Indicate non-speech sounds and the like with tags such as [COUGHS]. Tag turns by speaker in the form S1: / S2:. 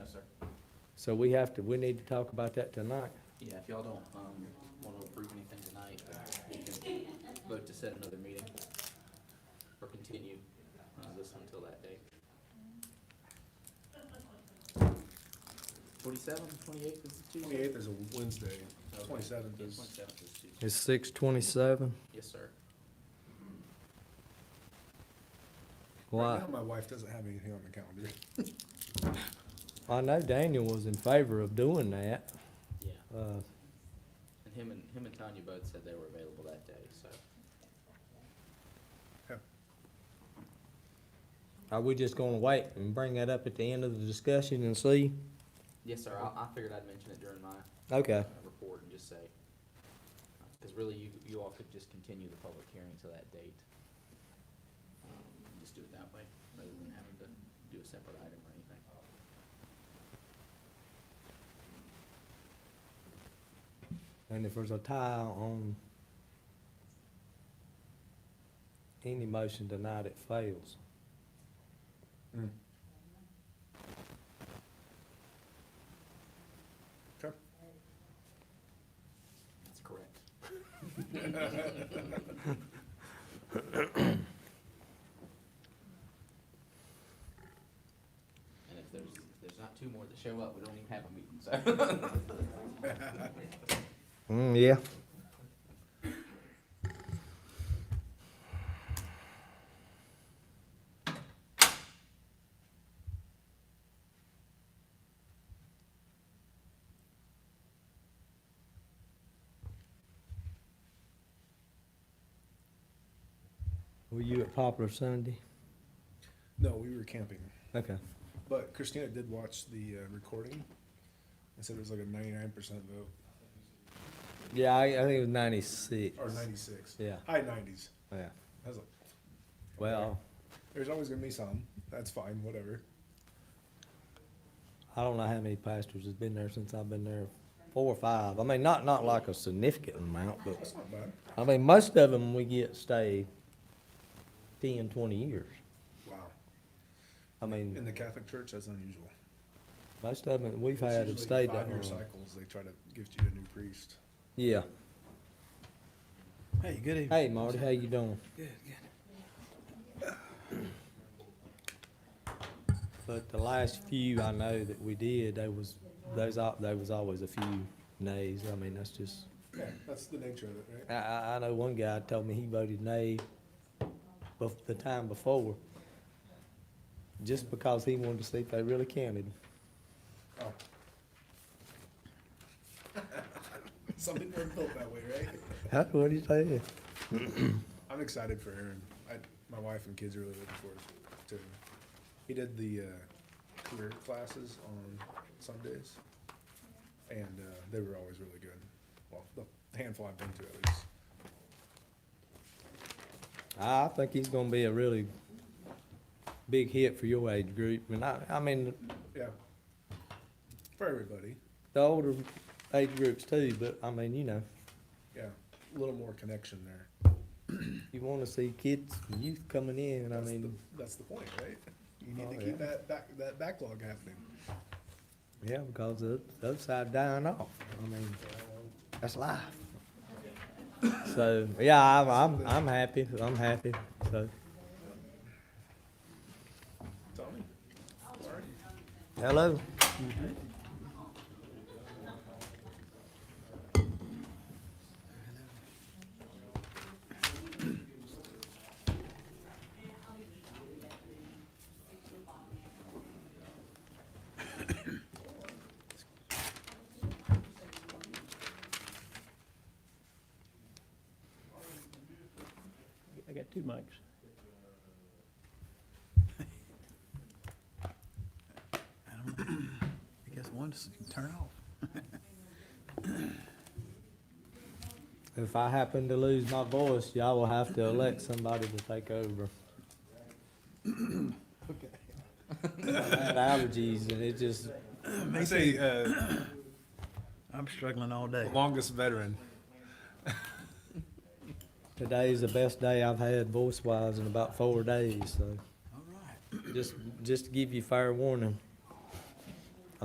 S1: So we have to, we need to talk about that tonight.
S2: Yeah, if y'all don't, um, wanna approve anything tonight, we can vote to set another meeting or continue, uh, this one until that date. Twenty-seventh, twenty-eighth is the Tuesday?
S3: Twenty-eighth is a Wednesday,
S2: Okay.
S3: twenty-seventh
S2: Yeah,
S3: is,
S2: 27th is Tuesday.
S1: It's six twenty-seven.
S2: Yes, sir.
S1: Why?
S3: right now, my wife doesn't have anything on the calendar.
S1: I know Daniel was in favor of doing that.
S2: Yeah,
S1: Uh,
S2: and him and, him and Tanya both said they were available that day, so.
S1: Are we just gonna wait and bring that up at the end of the discussion and see?
S2: Yes, sir, I, I figured I'd mention it during my,
S1: Okay,
S2: uh, report and just say, because really, you, you all could just continue the public hearing to that date. Um, Just do it that way, rather than having to do a separate item or anything.
S1: and if there's a tie on any motion tonight, it fails.
S3: Okay.
S2: That's correct. And if there's, if there's not two more that show up, we don't even have a meeting, so.
S1: Mm, yeah. Were you at Poplar Sunday?
S3: No, we were camping,
S1: Okay.
S3: but Christina did watch the uh, recording, and said it was like a ninety-nine percent vote,
S1: Yeah, I, I think it was ninety-six.
S3: or ninety-six,
S1: Yeah,
S3: high nineties.
S1: yeah.
S3: I was like,
S1: Well,
S3: there's always gonna be some, that's fine, whatever.
S1: I don't know how many pastors has been there since I've been there, four or five. I mean, not, not like a significant amount, but,
S3: That's not bad.
S1: I mean, most of them we get stay 10, 20 years.
S3: Wow.
S1: I
S3: In
S1: mean,
S3: the Catholic Church, that's unusual.
S1: most of them we've
S3: It's
S1: had have
S3: usually
S1: stayed that
S3: Five-year
S1: long.
S3: cycles, they try to gift you a new priest.
S1: Yeah.
S4: Hey, good evening.
S1: Hey, Marty, how you doing?
S4: Good, good.
S1: But the last few I know that we did, there was, those, al- there was always a few nays. I mean, that's just,
S3: Yeah, that's the nature of it, right?
S1: I, I, I know one guy told me he voted nay bef- the time before, just because he wanted to see if they really counted.
S3: [LAUGHS] Oh. Some people are built that way, right?
S1: Huh? What did you say?
S3: I'm excited for Aaron. I, my wife and kids are really looking forward to him. He did the uh, career classes on Sundays, and uh, they were always really good. Well, the handful I've been to at least.
S1: I I think he's gonna be a really big hit for your age group, and I, I mean,
S3: Yeah. For everybody,
S1: the older age groups too, but I mean, you know,
S3: yeah. A little more connection there.
S1: you wanna see kids, youth coming in, I
S3: That's,
S1: mean,
S3: the, that's the point, right? You need
S1: Oh,
S3: to
S1: yeah.
S3: keep that, back, that backlog happening.
S1: yeah, because the the other side dying off, I mean, that's life. So, yeah, I'm, I'm, I'm happy, I'm happy, so,
S3: Tommy? Sorry.
S1: hello?
S4: I got two mics. I guess one's turn off.
S1: If I happen to lose my voice, y'all will have to elect somebody to take
S4: [COUGHS]
S1: over. I had allergies and it just,
S3: I say uh,
S4: I'm struggling all day.
S3: longest veteran.
S1: today's the best day I've had voice wise in about four days, so
S4: All right.
S1: just, just to give you fair warning.